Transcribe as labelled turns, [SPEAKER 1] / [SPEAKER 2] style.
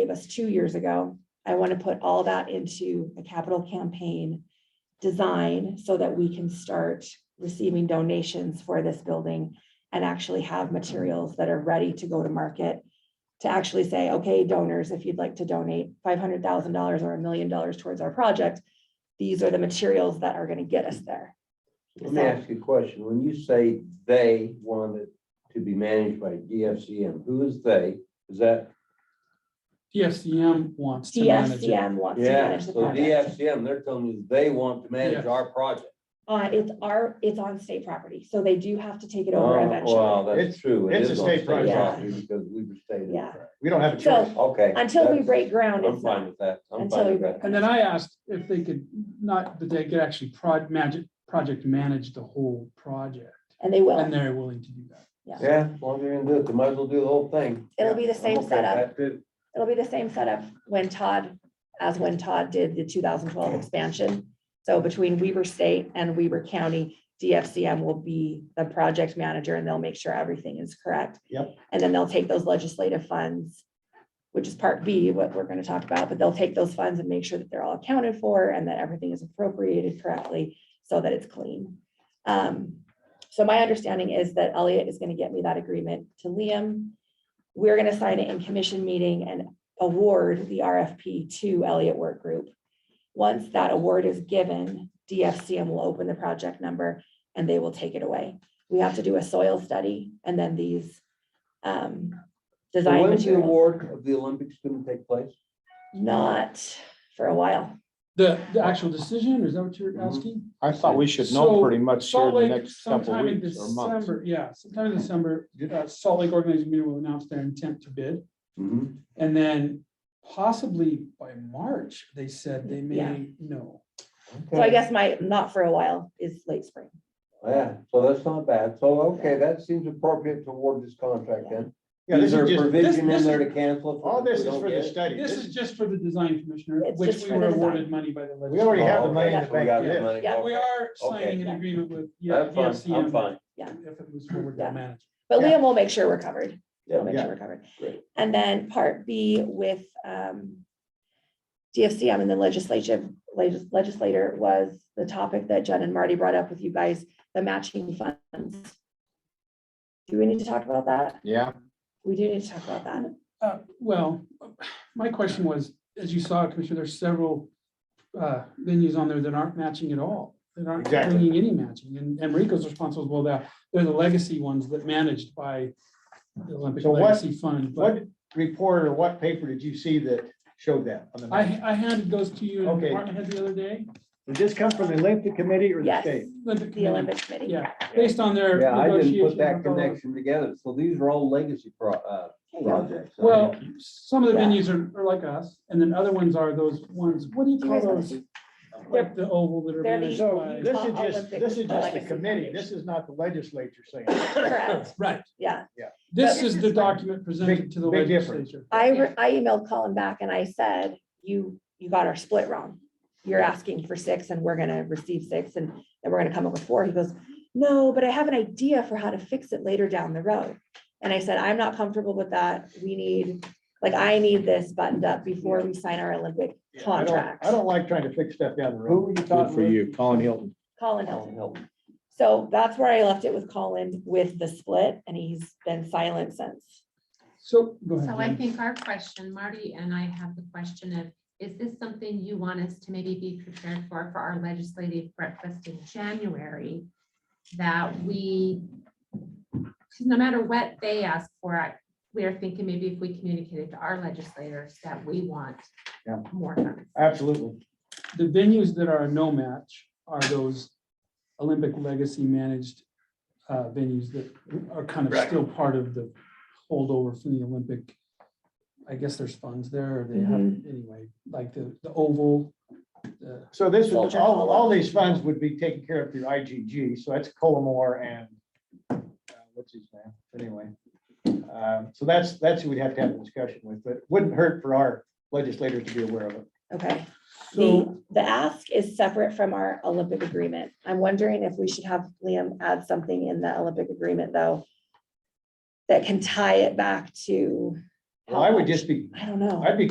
[SPEAKER 1] gave us two years ago. I want to put all that into a capital campaign design so that we can start receiving donations for this building and actually have materials that are ready to go to market to actually say, okay, donors, if you'd like to donate five hundred thousand dollars or a million dollars towards our project, these are the materials that are going to get us there.
[SPEAKER 2] Let me ask you a question. When you say they wanted to be managed by DFCM, who is they? Is that,
[SPEAKER 3] DFCM wants to manage it.
[SPEAKER 1] DFCM wants to
[SPEAKER 2] yeah,
[SPEAKER 1] manage the
[SPEAKER 2] so
[SPEAKER 1] project.
[SPEAKER 2] DFCM, they're telling you they want to manage
[SPEAKER 3] Yes.
[SPEAKER 2] our project.
[SPEAKER 1] Uh, it's our, it's on state property, so they do have to take it over
[SPEAKER 2] Oh, Wow,
[SPEAKER 1] eventually.
[SPEAKER 2] that's
[SPEAKER 4] It's-
[SPEAKER 2] true. It
[SPEAKER 4] it's
[SPEAKER 2] is
[SPEAKER 4] a
[SPEAKER 2] on
[SPEAKER 4] state
[SPEAKER 2] state
[SPEAKER 4] project.
[SPEAKER 2] property Because we were stated.
[SPEAKER 1] Yeah.
[SPEAKER 4] We don't have a
[SPEAKER 1] So-
[SPEAKER 4] choice.
[SPEAKER 2] Okay.
[SPEAKER 1] Until we
[SPEAKER 2] that's-
[SPEAKER 1] break ground,
[SPEAKER 2] I'm
[SPEAKER 1] it's
[SPEAKER 2] fine
[SPEAKER 1] not.
[SPEAKER 2] with that. I'm
[SPEAKER 1] until
[SPEAKER 2] fine
[SPEAKER 1] we
[SPEAKER 2] with
[SPEAKER 1] break
[SPEAKER 2] that.
[SPEAKER 3] And then I asked if they could, not that they could actually prod, magic, project manage the whole project.
[SPEAKER 1] And they
[SPEAKER 3] And
[SPEAKER 1] will.
[SPEAKER 3] they're willing to do that.
[SPEAKER 2] Yeah, as long as you're gonna do it, they might as well do the whole thing.
[SPEAKER 1] It'll be the
[SPEAKER 2] Yeah, I'm
[SPEAKER 1] same
[SPEAKER 2] okay with that.
[SPEAKER 1] setup. It'll be the same setup when Todd, as when Todd did the two thousand twelve expansion. So between Weber State and Weber County, DFCM will be the project manager and they'll make sure everything is correct.
[SPEAKER 4] Yep.
[SPEAKER 1] And then they'll take those legislative funds, which is part B, what we're gonna talk about, but they'll take those funds and make sure that they're all accounted for and that everything is appropriated correctly so that it's clean. Um, so my understanding is that Elliot is gonna get me that agreement to Liam. We're gonna sign it in commission meeting and award the RFP to Elliott Work Group. Once that award is given, DFCM will open the project number and they will take it away. We have to do a soil study and then these um
[SPEAKER 2] So
[SPEAKER 1] design
[SPEAKER 2] When's the
[SPEAKER 1] materials,
[SPEAKER 2] award of the Olympics gonna take place?
[SPEAKER 1] not for a while.
[SPEAKER 3] The, the actual decision, is that what you're
[SPEAKER 2] Mhm.
[SPEAKER 3] asking?
[SPEAKER 5] I thought we should
[SPEAKER 3] So,
[SPEAKER 5] know pretty much here in
[SPEAKER 3] Salt
[SPEAKER 5] Mm-hmm. the
[SPEAKER 3] Lake
[SPEAKER 5] next couple
[SPEAKER 3] sometime in
[SPEAKER 5] weeks or months.
[SPEAKER 3] December, yeah, sometime in December, uh, Salt Lake Organizing Committee will announce their intent to bid.
[SPEAKER 2] Mhm.
[SPEAKER 3] And then possibly by March, they said they may know.
[SPEAKER 1] So I guess my not for a while is late spring.
[SPEAKER 2] Yeah, so that's not bad. So, okay, that seems appropriate to award this contract then.
[SPEAKER 4] Yeah, this
[SPEAKER 2] Is there
[SPEAKER 4] is
[SPEAKER 2] a
[SPEAKER 4] just,
[SPEAKER 2] provision
[SPEAKER 3] this-
[SPEAKER 2] in there to cancel? if
[SPEAKER 4] all
[SPEAKER 2] we
[SPEAKER 4] this is
[SPEAKER 2] don't
[SPEAKER 4] for
[SPEAKER 2] get
[SPEAKER 4] the
[SPEAKER 2] it?
[SPEAKER 4] study.
[SPEAKER 3] This is just for the design commissioner,
[SPEAKER 1] It's
[SPEAKER 3] which
[SPEAKER 1] just
[SPEAKER 3] we
[SPEAKER 1] for
[SPEAKER 3] were
[SPEAKER 1] the design.
[SPEAKER 3] awarded money by the
[SPEAKER 4] We already
[SPEAKER 3] legislature.
[SPEAKER 4] have the money
[SPEAKER 2] Oh,
[SPEAKER 4] in
[SPEAKER 2] okay,
[SPEAKER 4] the
[SPEAKER 2] so we
[SPEAKER 4] bank.
[SPEAKER 2] got
[SPEAKER 4] yeah.
[SPEAKER 2] the money.
[SPEAKER 1] Yeah.
[SPEAKER 3] We are
[SPEAKER 2] Okay.
[SPEAKER 3] signing an agreement with, E yeah,
[SPEAKER 2] That's fine, I'm
[SPEAKER 3] DFCM.
[SPEAKER 2] fine.
[SPEAKER 3] If it moves forward
[SPEAKER 1] Yeah.
[SPEAKER 3] to manage.
[SPEAKER 1] But
[SPEAKER 4] Yeah.
[SPEAKER 1] Liam will make sure we're covered. We'll
[SPEAKER 2] Yeah,
[SPEAKER 1] make sure
[SPEAKER 4] Yeah.
[SPEAKER 1] we're covered.
[SPEAKER 2] Great.
[SPEAKER 1] And then part B with um. DFCM and the legislative legis- legislator was the topic that Jen and Marty brought up with you guys, the matching funds. Do we need to talk about that?
[SPEAKER 5] Yeah,
[SPEAKER 1] We do need to talk about that.
[SPEAKER 3] Uh, Well, my question was, as you saw, Commissioner, there's several uh, venues on there that aren't matching at all. That aren't
[SPEAKER 4] Exactly.
[SPEAKER 3] bringing any matching. And Enrico's responsible, well, they're, they're the legacy ones that managed by the Olympic
[SPEAKER 4] So what-
[SPEAKER 3] Legacy Fund. But
[SPEAKER 4] What report or what paper did you see that showed that? on the
[SPEAKER 3] I,
[SPEAKER 4] map?
[SPEAKER 3] I handed those to you in the
[SPEAKER 4] Okay.
[SPEAKER 3] department head the other day.
[SPEAKER 4] Did this come from the Olympic Committee or the
[SPEAKER 1] Yes.
[SPEAKER 4] state?
[SPEAKER 3] Olympic
[SPEAKER 1] The
[SPEAKER 3] Committee,
[SPEAKER 1] Olympic Committee.
[SPEAKER 3] Mm-hmm. Yeah, based on their
[SPEAKER 2] Yeah, I
[SPEAKER 3] negotiation.
[SPEAKER 2] didn't put that
[SPEAKER 3] with all-
[SPEAKER 2] connection together. So these are all legacy pro, uh,
[SPEAKER 1] There you go.
[SPEAKER 2] projects. I
[SPEAKER 3] Well, some of the
[SPEAKER 1] Yeah.
[SPEAKER 3] venues are, are like us, and then other ones are those ones, what do you
[SPEAKER 1] Do you guys
[SPEAKER 3] call
[SPEAKER 1] wanna
[SPEAKER 3] those?
[SPEAKER 1] see?
[SPEAKER 3] Like the oval that are
[SPEAKER 1] They're the-
[SPEAKER 3] managed
[SPEAKER 4] So
[SPEAKER 3] by.
[SPEAKER 4] this is just,
[SPEAKER 1] Olympic
[SPEAKER 4] this is just the
[SPEAKER 1] Legacy
[SPEAKER 4] committee.
[SPEAKER 1] Foundation.
[SPEAKER 4] This is not the legislature saying. it.
[SPEAKER 1] Correct,
[SPEAKER 3] Right,
[SPEAKER 1] yeah.
[SPEAKER 3] this is the document presented to the
[SPEAKER 4] Big- big difference.
[SPEAKER 3] legislature.
[SPEAKER 1] I, re- I emailed Colin back and I said, you, you got our split wrong. You're asking for six and we're gonna receive six and then we're gonna come up with four. He goes, no, but I have an idea for how to fix it later down the road. And I said, I'm not comfortable with that. We need, like, I need this buttoned up before we sign our Olympic
[SPEAKER 4] Yeah, I don't-
[SPEAKER 1] contract.
[SPEAKER 4] I don't like trying to fix stuff down the
[SPEAKER 2] Who
[SPEAKER 4] road.
[SPEAKER 2] were you
[SPEAKER 5] good
[SPEAKER 2] talking
[SPEAKER 5] for
[SPEAKER 2] with?
[SPEAKER 5] you, Colin Hilton.
[SPEAKER 1] Colin
[SPEAKER 2] Oh,
[SPEAKER 1] Hilton.
[SPEAKER 2] no.
[SPEAKER 1] So that's where I left it with Colin with the split and he's been silent since.
[SPEAKER 3] So, go ahead.
[SPEAKER 6] So I
[SPEAKER 3] Jen.
[SPEAKER 6] think our question, Marty and I have the question of, is this something you want us to maybe be prepared for, for our legislative breakfast in January? That we, 'cause no matter what they ask for, I- we are thinking maybe if we communicated to our legislators that we want
[SPEAKER 4] Yeah.
[SPEAKER 6] more funds.
[SPEAKER 4] Absolutely.
[SPEAKER 3] The venues that are a no match are those Olympic legacy managed uh, venues that are kind of
[SPEAKER 4] Right.
[SPEAKER 3] still part of the holdover from the Olympic. I guess there's funds there, or they have, anyway, like the, the oval, the
[SPEAKER 4] So this is,
[SPEAKER 1] Soldier
[SPEAKER 4] all,
[SPEAKER 1] Hollow.
[SPEAKER 4] all these funds would be taken care of through IGG, so that's Colmore and uh, what's his name, anyway. Um, So that's, that's who we'd have to have a discussion with, but wouldn't hurt for our legislators to be aware of it.
[SPEAKER 1] Okay.
[SPEAKER 3] So-
[SPEAKER 1] The, the ask is separate from our Olympic agreement. I'm wondering if we should have Liam add something in the Olympic agreement, though, that can tie it back to.
[SPEAKER 4] Well, I would just be,
[SPEAKER 1] I don't know.
[SPEAKER 4] I'd be